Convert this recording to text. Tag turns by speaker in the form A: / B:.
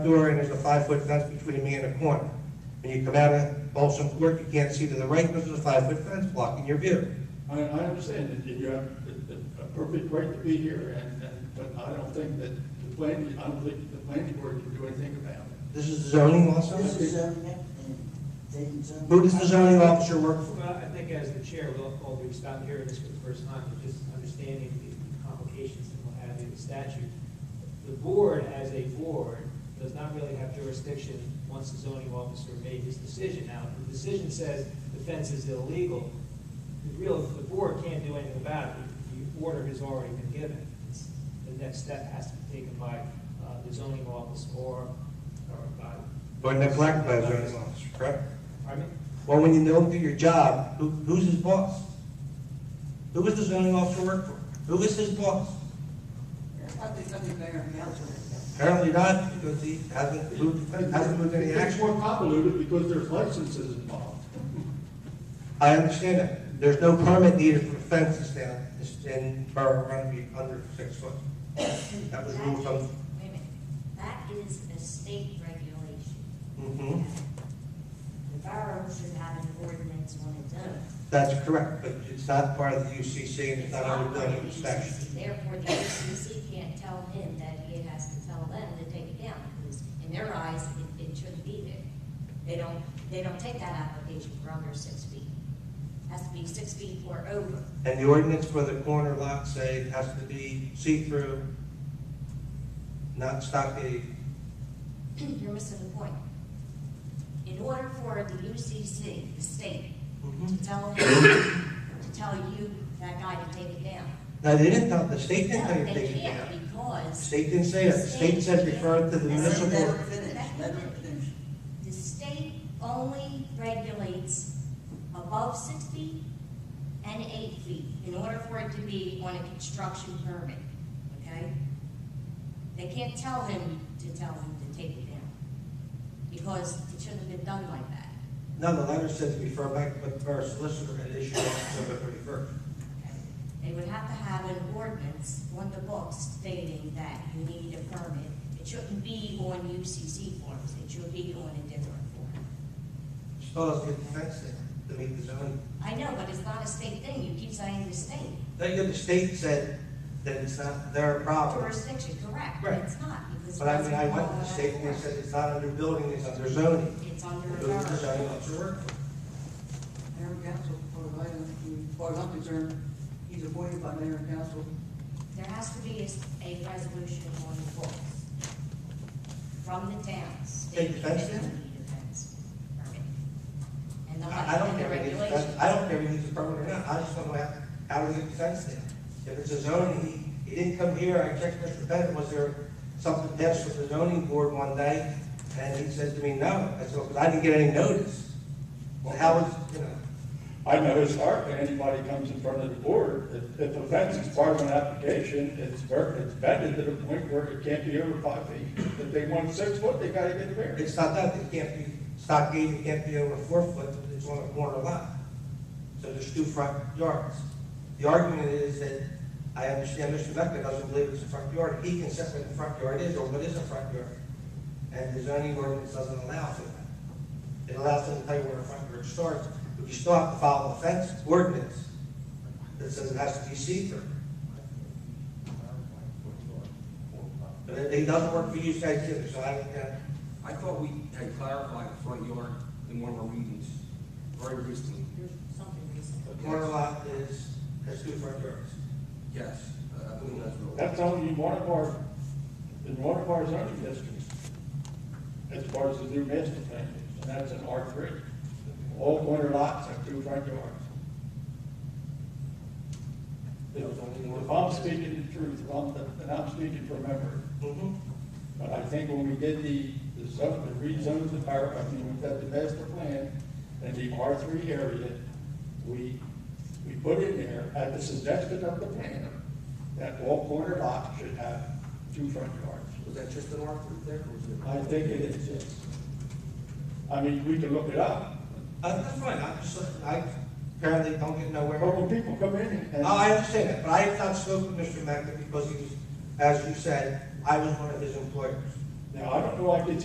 A: door and there's a five-foot fence between me and the corner. When you come out of Balsam Court, you can't see to the right because there's a five-foot fence blocking your view.
B: I, I understand that you have a- a a perfect right to be here, and, and, but I don't think that the plan, I don't think the planning board can do anything about it.
A: This is zoning also?
C: This is zoning, and Dayton zoning.
A: Who does the zoning officer work for?
D: Well, I think as the chair, we'll, all we've stopped hearing this for the first time, but just understanding the complications and what have you, the statute. The board, as a board, does not really have jurisdiction once the zoning officer made his decision. Now, if the decision says the fence is illegal, the real, the board can't do anything about it. The- The order has already been given. It's- The next step has to be taken by uh, the zoning office or, or by.
A: Or neglected by the zoning officer, correct?
D: Pardon me?
A: Well, when you don't do your job, who, who's his boss? Who does the zoning officer work for? Who is his boss?
C: I think, I think Mayor Melton.
A: Apparently not, because he hasn't moved, hasn't moved any
B: It's
A: action.
B: more convoluted because there's licenses involved.
A: I understand that. There's no permit needed for fences down in Borough Rugby under six foot. That was ruled from,
E: Wait a minute, that is a state regulation.
A: Mhm.
E: The borough should have an ordinance on its own.
A: that's correct, but it's not part of the UCC and it's
E: It's
A: not
E: not
A: under
E: part of
A: building
E: the
A: inspection.
E: UCC. Therefore, the UCC can't tell him that he has to tell them to take it down, because in their eyes, it, it shouldn't be there. They don't, they don't take that application for under six feet. Has to be six feet or over.
A: And the ordinance for the corner lot say it has to be see-through, not stockade.
E: You're missing the point. In order for the UCC, the state, to tell him, to tell you, that guy to take it down.
A: Now, they didn't tell, the state didn't tell you
E: No,
A: to
E: they
A: take it
E: can't
A: down. The
E: because
A: state didn't say that. The state said refer to the
C: Let him
A: municipal.
C: finish, let him finish.
E: the state only regulates above six feet and eight feet in order for it to be on a construction permit, okay? They can't tell him to tell him to take it down because it shouldn't have been done like that.
A: No, the letter says refer back with the borough solicitor and issue on December thirty-first.
E: okay? They would have to have an ordinance on the books stating that you need a permit. It shouldn't be on UCC forms, it should be on a different form.
A: Still doesn't get the fence in to meet the zoning.
E: I know, but it's not a state thing, you keep saying the state
A: That, the state said that it's not their problem.
E: jurisdiction, correct,
A: Right.
E: but it's not, because.
A: But I
E: it's
A: mean, I went to the
E: not
A: state and they
E: allowed.
A: said it's not under building, it's under zoning.
E: It's under a
A: Those are the zoning
E: borough.
A: officer work.
C: Mayor and council, for the light of- for I'm concerned, he's appointed by mayor and council.
E: There has to be a, s- a resolution on the books from the towns.
A: Take the fence
E: stating
A: down?
E: they need a fence permit. And the,
A: I I don't
E: and the
A: care if it needs,
E: regulations.
A: I don't care if it needs a permit or not, I just don't know how- how to get the fence there. If it's a zoning, he, he didn't come here, I checked Mr. Bennett, was there something passed with the zoning board one day? And he said to me, no, I said, "Well, 'cause I didn't get any notice. Well, how was, you know,
B: I know historically, anybody comes in front of the board, if, if a fence is part of an application, it's, ver- it's vetted to the point where it can't be over five feet. If they want six foot, they gotta get a variance.
A: It's not that, it can't be stockade, it can't be over four foot, it's on a corner lot. So there's two front yards. The argument is that, I understand Mr. Becker doesn't believe it's a front yard, he can set what the front yard is, or what is a front yard. And the zoning ordinance doesn't allow for that. It allows them to tell you where the front yard starts, but you still have to follow the fence ordinance that says it has to be see-through. But it it doesn't work for you guys either, so I don't, uh,
F: I thought we had clarified the front yard in one of our meetings very recently.
E: There's something recent.
A: corner lot is, has two front yards.
F: Yes, I believe that's real.
B: That's only in one of our, in one of our zoning districts. As far as the new master plan, and that's an R three. All corner lots have two front yards. If I'm speaking the truth, if I'm, and I'm speaking from memory,
A: Mhm.
B: but I think when we did the, the zone, the rezones of our, I mean, we've got the master plan and the R three area, we, we put in there, at the suggestion of the planner, that all corner lots should have two front yards.
F: Was that just an R three there? or was it-
B: I think it is, yes. I mean, we can look it up,
A: Uh, that's fine, I just, I apparently don't get nowhere.
B: but when people come in and.
A: No, Oh, I understand that, but I have not spoken to Mr. Mecca because he was, as you said, I was one of his employers.
B: Now, I don't know, I could